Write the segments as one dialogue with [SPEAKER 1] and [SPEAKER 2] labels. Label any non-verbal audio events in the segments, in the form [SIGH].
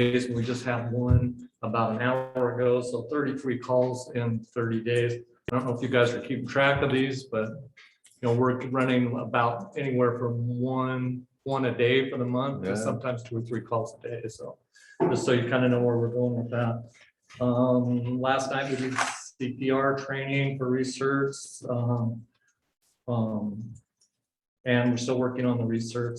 [SPEAKER 1] days. We just had one about an hour ago, so thirty-three calls in thirty days. I don't know if you guys are keeping track of these, but you know, we're running about anywhere from one, one a day for the month, to
[SPEAKER 2] Yeah.
[SPEAKER 1] sometimes two or three calls a day, so. Just so you kind of know where we're going with that. Um, last night we did CPR training for research, um. um, and we're still working on the research.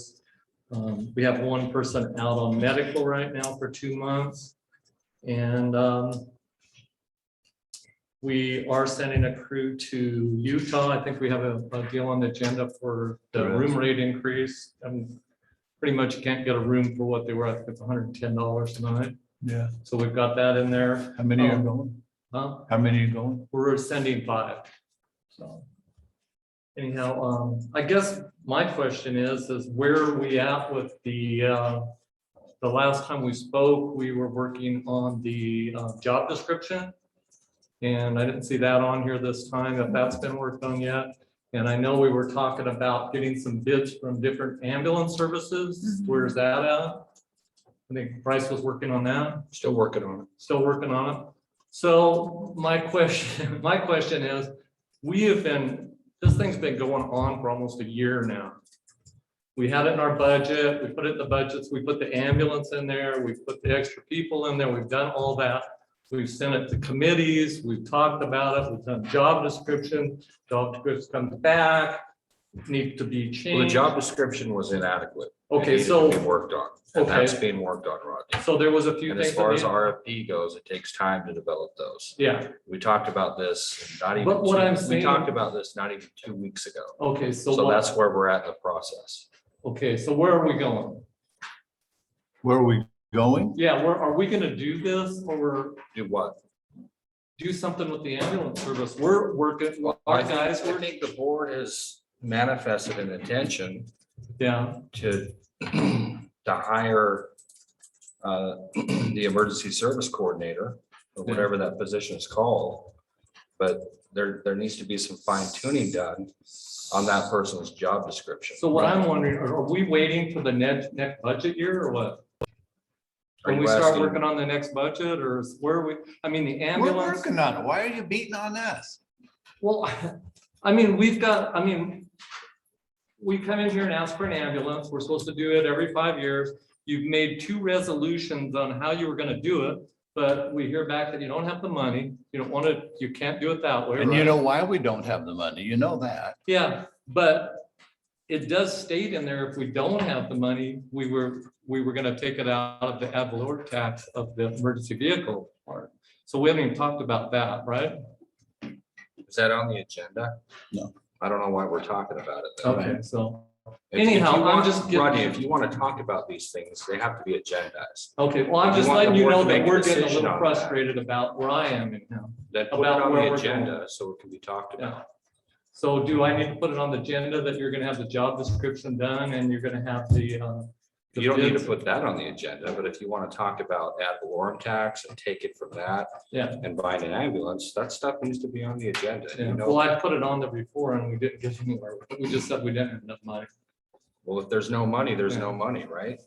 [SPEAKER 1] Um, we have one person out on medical right now for two months. And, um, we are sending a crew to Utah. I think we have a, a deal on the agenda for the
[SPEAKER 2] Correct.
[SPEAKER 1] room rate increase. Um, pretty much you can't get a room for what they were, I think it's hundred and ten dollars tonight.
[SPEAKER 2] Yeah,
[SPEAKER 1] So we've got that in there.
[SPEAKER 2] how many are
[SPEAKER 1] Um,
[SPEAKER 2] going?
[SPEAKER 1] Huh?
[SPEAKER 2] How many are going?
[SPEAKER 1] We're sending five. So. Anyhow, um, I guess my question is, is where are we at with the, uh, the last time we spoke, we were working on the, uh, job description. And I didn't see that on here this time, if that's been worked on yet. And I know we were talking about getting some bids from different ambulance services. Where's that at? I think Bryce was working on that.
[SPEAKER 2] Still working on
[SPEAKER 1] Still working on it. So my question, [LAUGHS] my question is, we have been, this thing's been going on for almost a year now. We had it in our budget, we put it in the budgets, we put the ambulance in there, we put the extra people in there, we've done all that. We've sent it to committees, we've talked about it, we've done job description, job description comes back, need to be
[SPEAKER 3] Well, the
[SPEAKER 1] changed.
[SPEAKER 3] job description was inadequate. It
[SPEAKER 1] Okay,
[SPEAKER 3] needed to
[SPEAKER 1] so,
[SPEAKER 3] be Worked on, and
[SPEAKER 1] Okay.
[SPEAKER 3] that's being worked on, Rodney.
[SPEAKER 1] so there was a few
[SPEAKER 3] And as
[SPEAKER 1] things.
[SPEAKER 3] far
[SPEAKER 1] that
[SPEAKER 3] as
[SPEAKER 1] need-
[SPEAKER 3] RFP goes, it takes time to develop those.
[SPEAKER 1] Yeah,
[SPEAKER 3] We talked about this, not even.
[SPEAKER 1] But what
[SPEAKER 3] two-
[SPEAKER 1] I'm
[SPEAKER 3] We
[SPEAKER 1] saying-
[SPEAKER 3] talked about this not even two weeks ago,
[SPEAKER 1] okay, so.
[SPEAKER 3] so
[SPEAKER 1] what-
[SPEAKER 3] that's where we're at in the process.
[SPEAKER 1] Okay, so where are we going?
[SPEAKER 2] Where are we going?
[SPEAKER 1] Yeah, we're, are we gonna do this or we're,
[SPEAKER 3] Do what?
[SPEAKER 1] do something with the ambulance service? We're working,
[SPEAKER 3] I
[SPEAKER 1] our
[SPEAKER 3] think,
[SPEAKER 1] guys,
[SPEAKER 3] I
[SPEAKER 1] were
[SPEAKER 3] think the board has manifested an intention
[SPEAKER 1] yeah,
[SPEAKER 3] to, to hire uh, the emergency service coordinator, or whatever that position is called. But there, there needs to be some fine tuning done on that person's job description.
[SPEAKER 1] so what I'm wondering, are are we waiting for the next, next budget year or what?
[SPEAKER 3] Are
[SPEAKER 1] When we
[SPEAKER 3] you
[SPEAKER 1] start
[SPEAKER 3] asking-
[SPEAKER 1] working on the next budget or is- where are we, I mean, the
[SPEAKER 2] We're
[SPEAKER 1] ambulance,
[SPEAKER 2] working on it. Why are you beating on us?
[SPEAKER 1] well, [LAUGHS] I mean, we've got, I mean, we come in here and ask for an ambulance, we're supposed to do it every five years. You've made two resolutions on how you were gonna do it, but we hear back that you don't have the money, you don't wanna, you can't do it that way.
[SPEAKER 2] And you
[SPEAKER 1] right?
[SPEAKER 2] know why we don't have the money, you know that.
[SPEAKER 1] Yeah, but it does state in there, if we don't have the money, we were, we were gonna take it out of the ad valorem tax of the emergency vehicle part. So we haven't even talked about that, right?
[SPEAKER 3] Is that on the agenda?
[SPEAKER 2] No.
[SPEAKER 3] I don't know why we're talking about it. though.
[SPEAKER 1] Okay, so,
[SPEAKER 3] If- if you
[SPEAKER 1] Anyhow, I'm
[SPEAKER 3] want-
[SPEAKER 1] just giving-
[SPEAKER 3] Rodney, if you want to talk about these things, they have to be agendized.
[SPEAKER 1] okay, well, I'm
[SPEAKER 3] You
[SPEAKER 1] just
[SPEAKER 3] want
[SPEAKER 1] letting
[SPEAKER 3] the
[SPEAKER 1] you
[SPEAKER 3] board
[SPEAKER 1] know
[SPEAKER 3] to
[SPEAKER 1] that
[SPEAKER 3] make a
[SPEAKER 1] we're getting a
[SPEAKER 3] decision
[SPEAKER 1] little
[SPEAKER 3] on that.
[SPEAKER 1] frustrated about where I am in town.
[SPEAKER 3] Then put it
[SPEAKER 1] About
[SPEAKER 3] on
[SPEAKER 1] where
[SPEAKER 3] the
[SPEAKER 1] we're
[SPEAKER 3] agenda so it can be talked about.
[SPEAKER 1] Yeah. So do I need to put it on the agenda that you're gonna have the job description done and you're gonna have the, uh? the
[SPEAKER 3] You don't need to
[SPEAKER 1] bids?
[SPEAKER 3] put that on the agenda, but if you want to talk about ad valorem tax and take it from that.
[SPEAKER 1] Yeah.
[SPEAKER 3] And buying an ambulance, that stuff needs to be on the agenda.
[SPEAKER 1] Yeah,
[SPEAKER 3] You
[SPEAKER 1] Well,
[SPEAKER 3] know,
[SPEAKER 1] I put it on there before and we didn't get anywhere. We just said we didn't have enough money.
[SPEAKER 3] well, if there's no money, there's no money, right?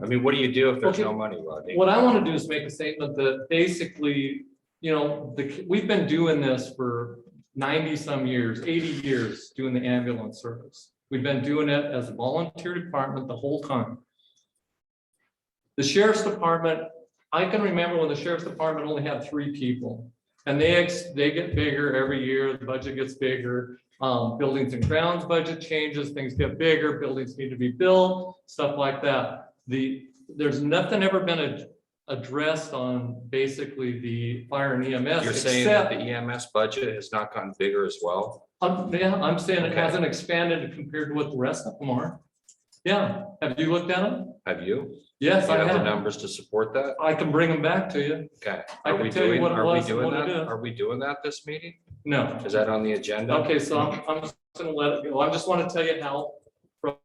[SPEAKER 3] I mean, what do you do if there's
[SPEAKER 1] Okay.
[SPEAKER 3] no money, Rodney?
[SPEAKER 1] What I want to do is make a statement that basically, you know, the, we've been doing this for ninety some years, eighty years, doing the ambulance service. We've been doing it as a volunteer department the whole time. The sheriff's department, I can remember when the sheriff's department only had three people. And they, ex- they get bigger every year, the budget gets bigger, um, buildings and grounds budget changes, things get bigger, buildings need to be built, stuff like that. The, there's nothing ever been ad- addressed on basically the fire and E EMS.
[SPEAKER 3] You're saying that the E
[SPEAKER 1] except-
[SPEAKER 3] EMS budget has not gotten bigger as well?
[SPEAKER 1] Um, yeah, I'm saying it
[SPEAKER 3] Okay.
[SPEAKER 1] hasn't expanded compared to what the rest of them are. Yeah, have you looked at them?
[SPEAKER 3] Have you? Do
[SPEAKER 1] Yes,
[SPEAKER 3] you
[SPEAKER 1] I
[SPEAKER 3] have the
[SPEAKER 1] have.
[SPEAKER 3] numbers to support that?
[SPEAKER 1] I can bring them back to you.
[SPEAKER 3] Okay.
[SPEAKER 1] I
[SPEAKER 3] Are
[SPEAKER 1] can
[SPEAKER 3] we
[SPEAKER 1] tell you
[SPEAKER 3] doing?
[SPEAKER 1] what it
[SPEAKER 3] Are we
[SPEAKER 1] was and
[SPEAKER 3] doing
[SPEAKER 1] what it
[SPEAKER 3] that?
[SPEAKER 1] is.
[SPEAKER 3] Are we doing that this meeting?
[SPEAKER 1] No.
[SPEAKER 3] Is that on the agenda?
[SPEAKER 1] Okay, so I'm, I'm just gonna let it go. I just want to tell you how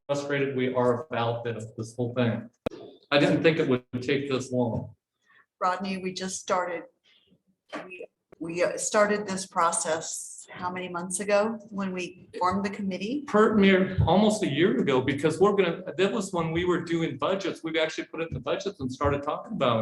[SPEAKER 1] frustrated we are about this, this whole thing. I didn't think it would take this long.
[SPEAKER 4] Rodney, we just started. We we uh, started this process how many months ago when we formed the committee?
[SPEAKER 1] Per mere, almost a year ago, because we're gonna, that was when we were doing budgets. We've actually put it in the budgets and started talking about it.